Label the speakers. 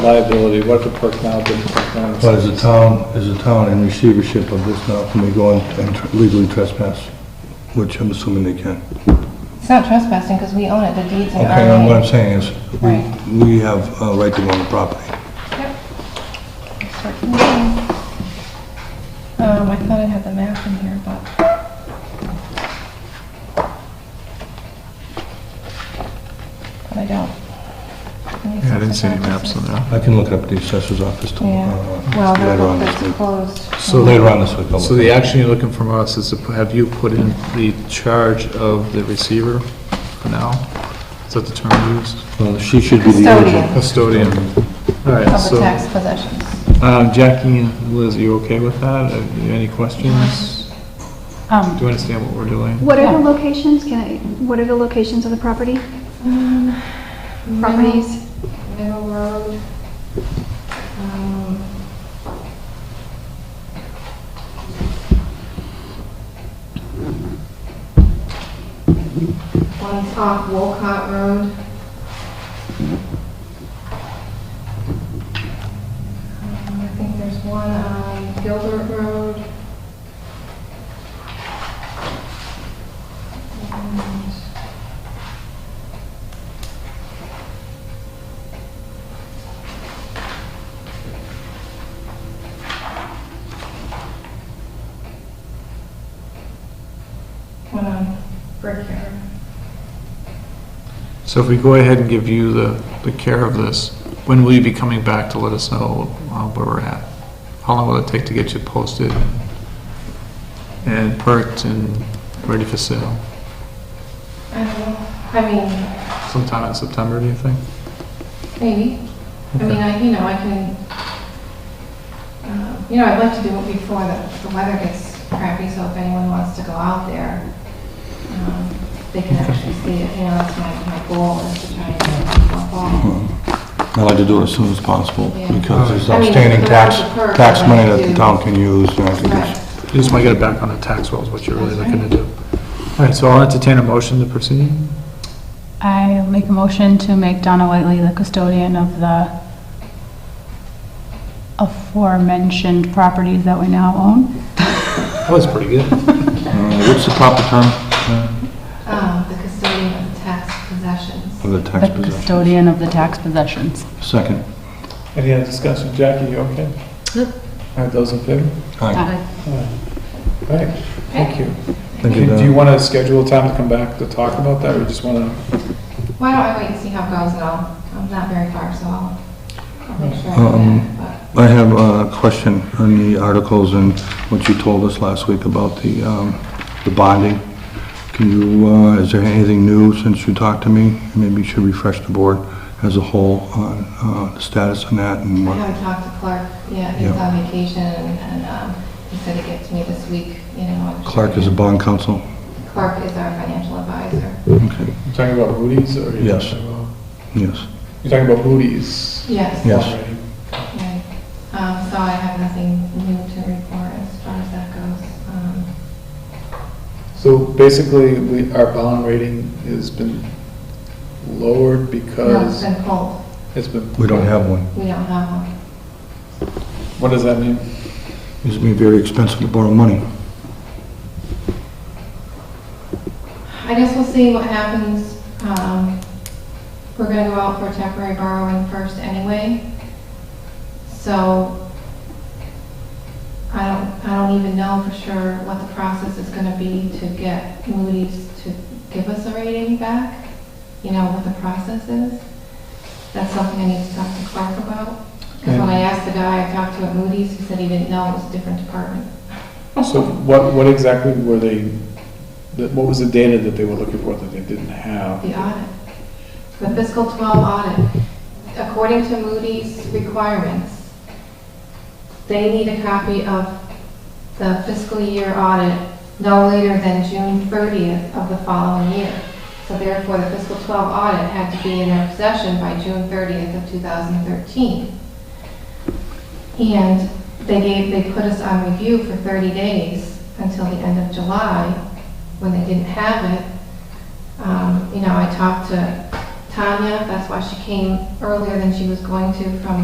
Speaker 1: liability, what if it perks now, doesn't perk now?
Speaker 2: But as a town, as a town in receivership of this now, can we go and- and tr- legally trespass? Which I'm assuming they can.
Speaker 3: It's not trespassing because we own it, the deed's in
Speaker 2: Okay, now what
Speaker 3: our
Speaker 2: I'm
Speaker 3: name.
Speaker 2: saying is,
Speaker 3: Right.
Speaker 2: we- we have a right to own the property.
Speaker 3: Yep. Start from there. Um, I thought I had the map in here, but, but I don't.
Speaker 4: Yeah, I didn't see any maps in there.
Speaker 2: I can look up the assessor's office to-
Speaker 3: Yeah,
Speaker 2: uh,
Speaker 3: well,
Speaker 2: later on
Speaker 3: the
Speaker 2: this
Speaker 3: book
Speaker 2: week.
Speaker 3: is closed.
Speaker 4: So-
Speaker 2: Later on this week. I'll
Speaker 4: So
Speaker 2: look
Speaker 4: the
Speaker 2: up.
Speaker 4: action you're looking from us is to p- have you put in the charge of the receiver for now? Is that the term used?
Speaker 2: Well, She should be the
Speaker 3: Custodian
Speaker 2: original.
Speaker 3: of
Speaker 4: Custodian. All right,
Speaker 3: the
Speaker 4: so,
Speaker 3: tax possessions.
Speaker 4: um, Jackie and Liz, you okay with that? Uh, you- Any questions? Do
Speaker 5: Um,
Speaker 4: you understand what we're doing?
Speaker 6: What are the
Speaker 3: Yeah.
Speaker 6: locations, can I, what are the locations of the property? Properties?
Speaker 3: Middle Road. um, One's off Wolcott Road. Um, I think there's one on Gilbert Road. And- One on Brickyard.
Speaker 4: So if we go ahead and give you the, the care of this, when will you be coming back to let us know uh, where we're at? How long will it take to get you posted and perked and ready for sale?
Speaker 3: I don't know, I mean,
Speaker 4: Sometime in September, do you think?
Speaker 3: maybe. I mean, I, you know, I can, uh, you know, I'd like to do it before the, the weather gets crappy, so if anyone wants to go out there, um, they can actually see it, you know, that's my, my goal is to try and get people
Speaker 4: Oh,
Speaker 3: involved.
Speaker 2: I'd like to do it as soon as possible,
Speaker 3: Yeah.
Speaker 2: because there's
Speaker 3: I mean,
Speaker 2: outstanding
Speaker 3: the
Speaker 2: tax,
Speaker 3: larger perk,
Speaker 2: tax
Speaker 3: I'd
Speaker 2: money
Speaker 3: like
Speaker 2: that the
Speaker 3: to-
Speaker 2: town can use, and I think
Speaker 3: Right.
Speaker 2: it's,
Speaker 4: You just want to get it back on the tax rolls, what you're really looking to do. All right, so I'll entertain a motion to proceed.
Speaker 5: I make a motion to make Donna Whiteley the custodian of the aforementioned properties that we now own.
Speaker 4: That was pretty good.
Speaker 2: Uh, what's the proper term
Speaker 3: Um, the custodian of tax possessions.
Speaker 2: for the tax
Speaker 5: The
Speaker 2: possession?
Speaker 5: custodian of the tax possessions.
Speaker 2: Second.
Speaker 4: Any other discussion? Jackie, you okay?
Speaker 5: Yep.
Speaker 4: All right, those in favor?
Speaker 3: Uh,
Speaker 2: Aye.
Speaker 4: All right, thank you.
Speaker 2: Thank you,
Speaker 4: Do you
Speaker 2: Dan.
Speaker 4: want to schedule a time to come back to talk about that, or just want to?
Speaker 3: Why don't I wait and see how it goes, and I'll, I'm not very far, so I'll, I'll make sure I
Speaker 2: Um,
Speaker 3: do that, but.
Speaker 2: I have a question on the articles and what you told us last week about the, um, the bonding. Can you, uh, is there anything new since you talked to me? Maybe you should refresh the board as a whole on, uh, the status on that and
Speaker 3: I
Speaker 2: what,
Speaker 3: haven't talked to Clark, yeah, he's
Speaker 2: Yeah.
Speaker 3: on vacation, and um, he said he'd get to me this week, you know. I'm sure-
Speaker 2: Clark is a bond counsel?
Speaker 3: Clark is our financial advisor.
Speaker 2: Okay,
Speaker 4: You're talking about Moody's, or? you're
Speaker 2: Yes.
Speaker 4: talking about-
Speaker 2: yes.
Speaker 4: You're talking about Moody's?
Speaker 3: Yes.
Speaker 2: Yes.
Speaker 4: already.
Speaker 3: Right. Um, So I have nothing new to report as far as that goes. Um,
Speaker 4: So basically, we, our bond rating has been lowered
Speaker 3: No, it's
Speaker 4: because
Speaker 3: been pulled,
Speaker 4: it's been.
Speaker 2: We don't have one.
Speaker 3: we don't have one.
Speaker 4: What does that mean?
Speaker 2: It's gonna be very expensive to borrow money.
Speaker 3: I guess we'll see what happens. Um, We're going to go out for temporary borrowing first anyway, so I don't, I don't even know for sure what the process is going to be to get Moody's to give us a rating back, you know, what the process is. That's something I need to talk to Clark about, because when I asked the guy I talked to at Moody's, he said he didn't know, it was a different department.
Speaker 4: So what, what exactly were they, that- what was the data that they were looking for that they didn't have?
Speaker 3: The audit, the fiscal 12 audit, according to Moody's requirements, they need a copy of the fiscal year audit no later than June 30th of the following year. So therefore, the fiscal 12 audit had to be in their possession by June 30th of 2013. And they gave, they put us on review for 30 days until the end of July, when they didn't have it. Um, You know, I talked to Tanya, that's why she came earlier than she was going to from